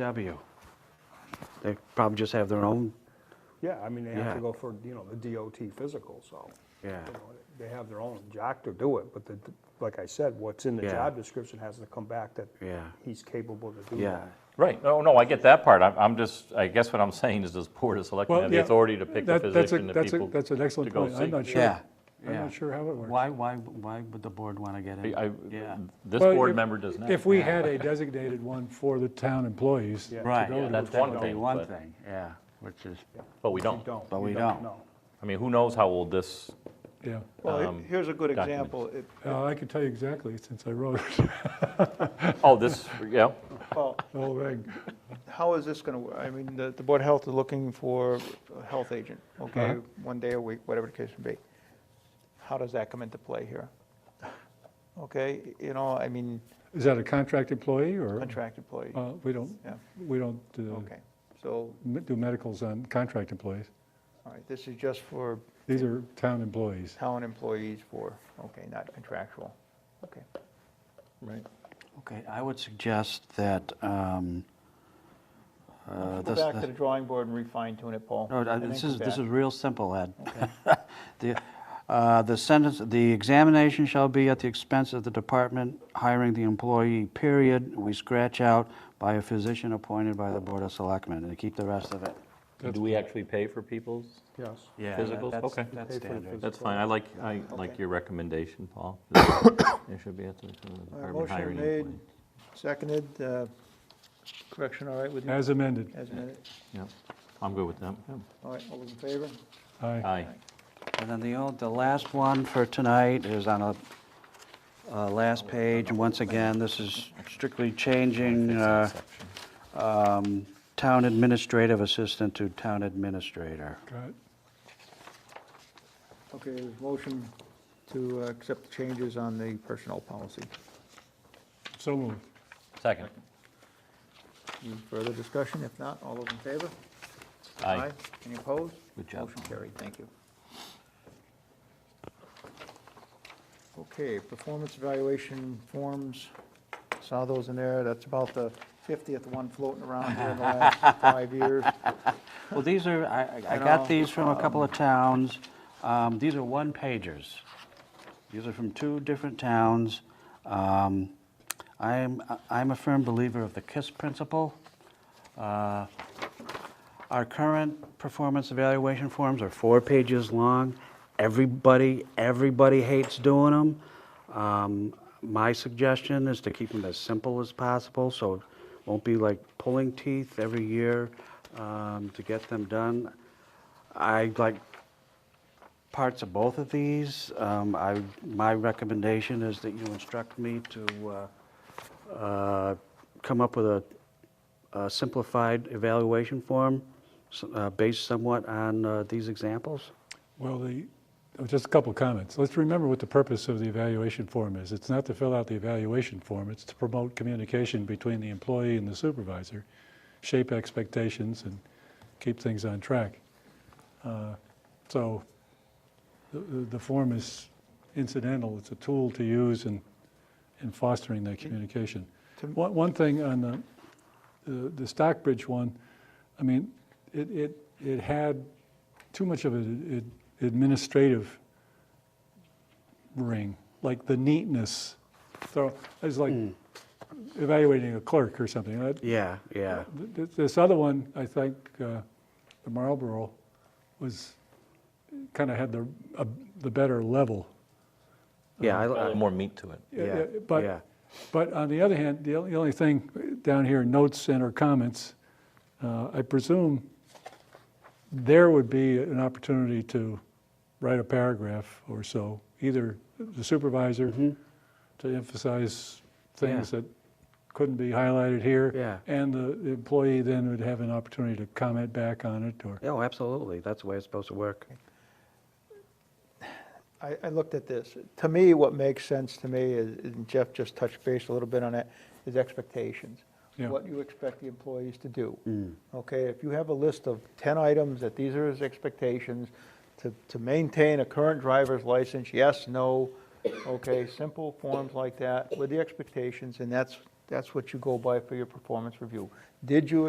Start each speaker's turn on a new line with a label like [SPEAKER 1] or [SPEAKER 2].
[SPEAKER 1] W.
[SPEAKER 2] They probably just have their own,
[SPEAKER 3] Yeah, I mean, they have
[SPEAKER 2] Yeah.
[SPEAKER 3] to go for, you know, the DOT physical, so.
[SPEAKER 2] Yeah.
[SPEAKER 3] you know, They have their own jock to do it, but the, like I said, what's in the
[SPEAKER 2] Yeah.
[SPEAKER 3] job description has to come back that
[SPEAKER 2] Yeah.
[SPEAKER 3] he's capable to do
[SPEAKER 2] yeah.
[SPEAKER 3] that.
[SPEAKER 4] Right, no, no, I get that part, I'm, I'm just, I guess what I'm saying is this board of selectmen
[SPEAKER 5] Well,
[SPEAKER 4] have the
[SPEAKER 5] yeah,
[SPEAKER 4] authority to pick the
[SPEAKER 5] that- that's a-
[SPEAKER 4] physician that
[SPEAKER 5] that's a-
[SPEAKER 4] people.
[SPEAKER 5] That's an excellent
[SPEAKER 4] to go
[SPEAKER 5] point. I'm
[SPEAKER 4] see.
[SPEAKER 5] not sure.
[SPEAKER 2] Yeah,
[SPEAKER 5] I'm
[SPEAKER 2] yeah.
[SPEAKER 5] not sure how it works.
[SPEAKER 2] Why, why, why would the board want to get in?
[SPEAKER 4] I- I-
[SPEAKER 2] Yeah,
[SPEAKER 4] This
[SPEAKER 5] Well,
[SPEAKER 4] board
[SPEAKER 5] if-
[SPEAKER 4] member does not.
[SPEAKER 5] If we had a designated one for the town employees,
[SPEAKER 3] Yeah.
[SPEAKER 2] right.
[SPEAKER 4] Yeah, that's
[SPEAKER 2] That
[SPEAKER 4] one
[SPEAKER 2] would be
[SPEAKER 4] thing,
[SPEAKER 2] one
[SPEAKER 4] but-
[SPEAKER 2] thing, yeah, which is,
[SPEAKER 4] But we
[SPEAKER 3] You
[SPEAKER 4] don't.
[SPEAKER 3] don't.
[SPEAKER 2] But
[SPEAKER 3] you
[SPEAKER 2] we don't.
[SPEAKER 3] know.
[SPEAKER 4] I mean, who knows how old this,
[SPEAKER 5] yeah.
[SPEAKER 1] Well,
[SPEAKER 4] Um,
[SPEAKER 1] he- here's a good
[SPEAKER 4] documents.
[SPEAKER 1] example. It-
[SPEAKER 5] Uh, I can tell you exactly since I wrote
[SPEAKER 4] oh, this, yeah,
[SPEAKER 1] Well,
[SPEAKER 5] the whole thing.
[SPEAKER 1] how is this going to, I mean, the, the Board of Health is looking for a health agent, okay?
[SPEAKER 5] Uh-huh.
[SPEAKER 1] One day a week, whatever the case may be. How does that come into play here? Okay, you know, I mean,
[SPEAKER 5] Is that a contract employee or?
[SPEAKER 1] contract employee,
[SPEAKER 5] Uh, We don't,
[SPEAKER 1] yeah,
[SPEAKER 5] we don't uh,
[SPEAKER 1] okay. So,
[SPEAKER 5] m- do medicals on contract employees.
[SPEAKER 1] all right, this is just for
[SPEAKER 5] These are town employees.
[SPEAKER 1] town employees for, okay, not contractual, okay.
[SPEAKER 2] Uh,
[SPEAKER 4] right,
[SPEAKER 2] okay, I would suggest that, um, uh,
[SPEAKER 1] Go
[SPEAKER 2] this,
[SPEAKER 1] back to
[SPEAKER 2] this-
[SPEAKER 1] the drawing board and refine tune it, Paul.
[SPEAKER 2] no, uh,
[SPEAKER 1] and then
[SPEAKER 2] this
[SPEAKER 1] come
[SPEAKER 2] is, this
[SPEAKER 1] back.
[SPEAKER 2] is real simple, Ed. The, uh, the sentence, the examination shall be at the expense of the department hiring the employee, period. We scratch out by a physician appointed by the Board of Selectmen, and keep the rest of it.
[SPEAKER 4] do we actually pay for people's?
[SPEAKER 3] Yes.
[SPEAKER 2] Yeah.
[SPEAKER 4] that- Physicals? that's- Okay.
[SPEAKER 2] That's
[SPEAKER 3] Pay for the
[SPEAKER 2] standard.
[SPEAKER 3] standard.
[SPEAKER 4] That's fine, I like, I like
[SPEAKER 1] Okay.
[SPEAKER 4] your recommendation, Paul. It should be at the
[SPEAKER 1] All right,
[SPEAKER 4] department
[SPEAKER 1] Motion
[SPEAKER 4] hiring
[SPEAKER 1] made,
[SPEAKER 4] employee.
[SPEAKER 1] seconded, uh, correction all right with you?
[SPEAKER 5] As amended.
[SPEAKER 1] As amended,
[SPEAKER 4] Yeah, I'm good with that.
[SPEAKER 1] all right, all those in favor?
[SPEAKER 5] Aye.
[SPEAKER 4] Aye,
[SPEAKER 2] And then the, o- the last one for tonight is on a, uh, last page, and once again, this is strictly changing, uh, um, town administrative assistant to town administrator.
[SPEAKER 5] Got it.
[SPEAKER 1] Okay, there's motion to uh, accept the changes on the personnel policy.
[SPEAKER 5] So moved.
[SPEAKER 4] second,
[SPEAKER 1] Any further discussion? If not, all those in favor?
[SPEAKER 4] aye.
[SPEAKER 1] Any opposed?
[SPEAKER 4] Good job.
[SPEAKER 1] Motion carried, thank you. Okay, performance evaluation forms, saw those in there, that's about the 50th one floating around here in the last five years.
[SPEAKER 2] Well, these are, I, I- I
[SPEAKER 1] You know,
[SPEAKER 2] got these from a couple of towns. Um, These are one pagers. These are from two different towns. Um, I'm, I'm a firm believer of the KISS principle. Uh, Our current performance evaluation forms are four pages long. Everybody, everybody hates doing them. My suggestion is to keep them as simple as possible, so it won't be like pulling teeth every year um, to get them done. I like parts of both of these. Um, I, my recommendation is that you instruct me to uh, uh, come up with a a simplified evaluation form s- uh, based somewhat on uh, these examples.
[SPEAKER 5] Well, the, oh, just a couple of comments. Let's remember what the purpose of the evaluation form is. It's not to fill out the evaluation form, it's to promote communication between the employee and the supervisor, shape expectations, and keep things on track. Uh, So the- the the form is incidental, it's a tool to use in in fostering that communication.
[SPEAKER 1] To-
[SPEAKER 5] One one thing on the the the Stockbridge one, I mean, it, it, it had too much of an ad- administrative ring, like the neatness. So it's like evaluating a clerk or something. That-
[SPEAKER 2] Yeah, yeah.
[SPEAKER 5] th- th- This other one, I think, uh, the Marlboro was, kind of had the, a- the better level. Uh,
[SPEAKER 2] Yeah, I-
[SPEAKER 4] A little
[SPEAKER 2] I-
[SPEAKER 4] more meat to it.
[SPEAKER 2] yeah,
[SPEAKER 5] But
[SPEAKER 2] yeah.
[SPEAKER 5] but on the other hand, the only the only thing down here, notes and or comments, uh, I presume there would be an opportunity to write a paragraph or so, either the supervisor to emphasize things
[SPEAKER 2] Mm-hmm. Yeah.
[SPEAKER 5] that couldn't be highlighted here.
[SPEAKER 2] Yeah.
[SPEAKER 5] And the the employee then would have an opportunity to comment back on it or,
[SPEAKER 2] Oh, absolutely. That's the way it's supposed to work.
[SPEAKER 1] I, I looked at this. To me, what makes sense to me is, and Jeff just touched base a little bit on it, is expectations.
[SPEAKER 5] Yeah.
[SPEAKER 1] What you expect the employees to do. Okay, if you have a list of 10 items that these are his expectations, to, to maintain a current driver's license, yes, no, okay, simple forms like that with the expectations, and that's, that's what you go by for your performance review. did you